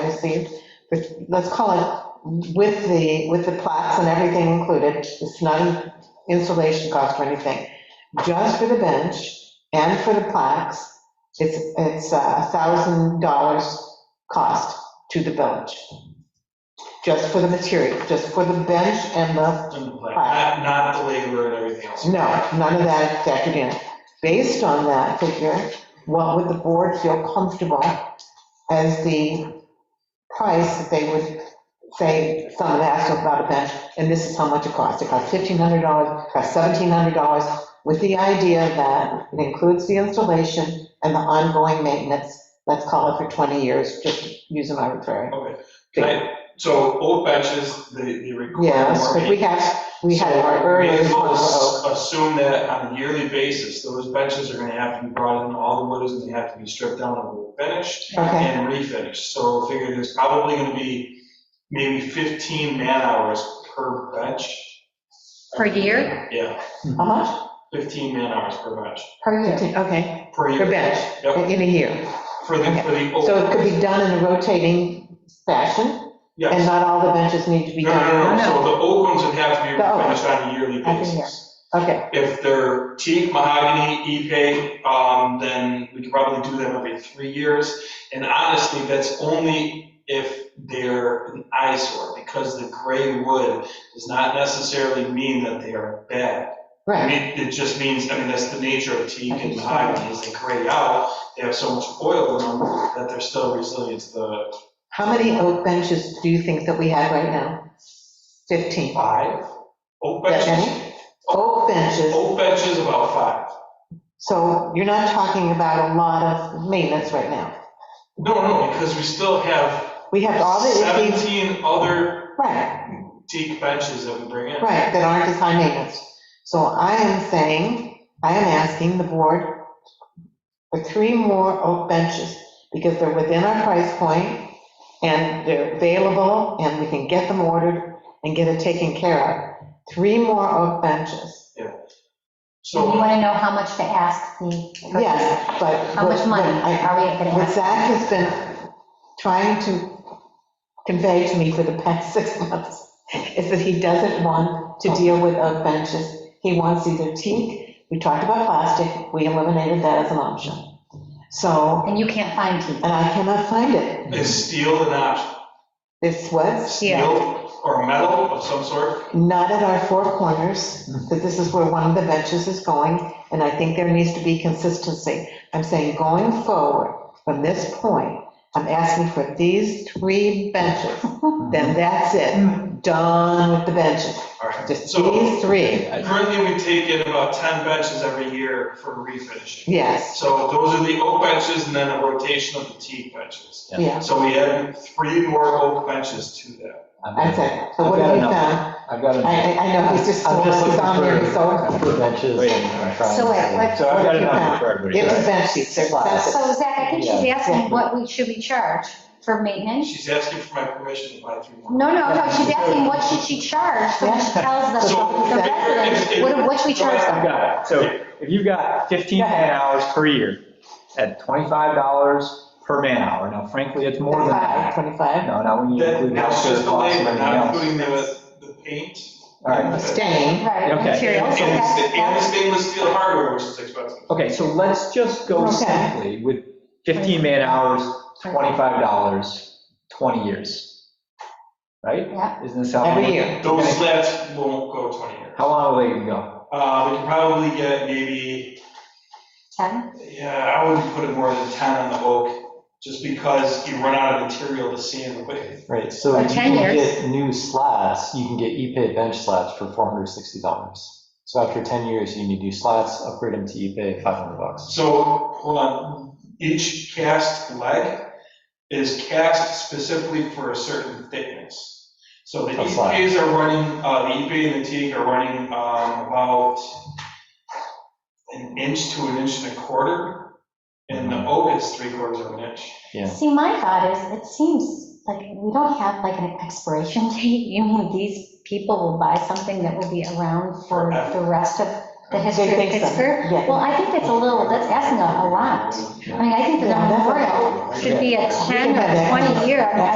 received, which, let's call it, with the, with the plaques and everything included, it's not an installation cost or anything, just for the bench and for the plaques, it's, it's uh, a thousand dollars cost to the village. Just for the material, just for the bench and the Not, not the labor and everything else. no, none of that is factored in. Based on that figure, what would the board feel comfortable as the price that they would say, someone asked about a bench, and this is how much it costs. It costs $1,500, it costs $1,700, with the idea that it includes the installation and the ongoing maintenance, let's call it for 20 years, just use an arbitrary. Okay, Can I- so oak benches, the, the requirement. Yes, but we have, we have our So may earlier. as well ass- Assume that on a yearly basis, those benches are gonna have to be brought in, all the wood is gonna have to be stripped down and finished Okay. and refinished. So figure there's probably gonna be maybe 15 man hours per bench. Per year? Yeah, How much? 15 man hours per bench, Per year, uh-huh. okay, per year. per bench, Yep, in a year. for the, for the oak. So it could be done in a rotating fashion, Yes. and not all the benches need to be No, done. no, no, so the oak ones would have to be The oak. refinished on a yearly I think basis. Okay, If they're teak, mahogany, ipe, um, then we could probably do them every three years. And honestly, that's only if they're an eyesore, because the gray wood does not necessarily mean that they are bad. I right, mean, it just means, I mean, that's the nature of teak and mahogany, is they gray out, they have so much oil in them that they're still resilient to the how many oak benches do you think that we have right now? 15. five. Oak That benches, many? Oak benches, oak benches about five. so you're not talking about a lot of maintenance right now. No, no, because we still have We have all the, issues- 17 other right, teak benches that we bring in. right, that aren't as high maintenance. So I am saying, I am asking the board for three more oak benches, because they're within our price point, and they're available, and we can get them ordered and get it taken care of. Three more oak benches, You So, want to know how much to ask the. yes, but. How much money I- are we going to What ask? Zach has been trying to convey to me for the past six months is that he doesn't want to deal with oak benches. He wants either teak, we talked about plastic, we eliminated that as an option. So, And you can't find teeth. and I cannot find it. is steel an option? This was Steel or metal of some sort? not at our four corners, that this is where one of the benches is going, and I think there needs to be consistency. I'm saying going forward, from this point, I'm asking for these three benches, then that's it, done with the benches, All right. just So these three, currently we take in about 10 benches every year for refinishing. yes, So those are the oak benches and then a rotation of the teak benches. yeah, So we add three more oak benches to that. that's it. So what have you found? I've got I, enough. I- I know, he's just, I'm just he's on there, he's so, looking for benches Wait. and I'm trying. So wait, what- So I've got Yeah. enough for give us everybody. bench seats, they're expensive. So Zach, I think she's Yeah. asking what we, should we charge for maintenance? She's asking for my permission to buy three more. No, no, no, she's asking what should she charge so when she tells the, So- the residents, what, what should we charge them? I've got it. So if you've got 15 man hours per year at $25 per man hour, now frankly, it's more than Five, that. 25, No, not when you That- include Now it's healthcare just the costs and labor, everything not else. including the, the paint. All right, staying, Right, Okay. materials, so And the sta- that's, and the that's, stainless steel hardware, which is expensive. okay, so let's just go Okay. simply with 15 man hours, $25, 20 years. Right? yeah. Isn't this how? every year. Those slats won't go 20 years. How long will they go? Uh, we can probably get maybe, 10? yeah, I wouldn't put it more than 10 on the oak, just because you run out of material to sand the wood. Right, so For if you 10 can years. get new slats, you can get Ipe bench slats for $460. So after 10 years, you need new slats, upgrade them to Ipe, 500 bucks. So, hold on, each cast leg is cast specifically for a certain thickness. So the A slat. EPAs are running, uh, the EPA and the teak are running, um, about an inch to an inch and a quarter, and the oak is three quarters of an inch. Yeah. See, my thought is, it seems like we don't have like an expiration date. You mean these people will buy something that will be around for the rest of the history They of think so, Pittsburgh? yeah. Well, I think that's a little, that's asking a a lot. I mean, I think the Yeah, that's a memorial should be a 10 Yeah. or 20 year. I mean,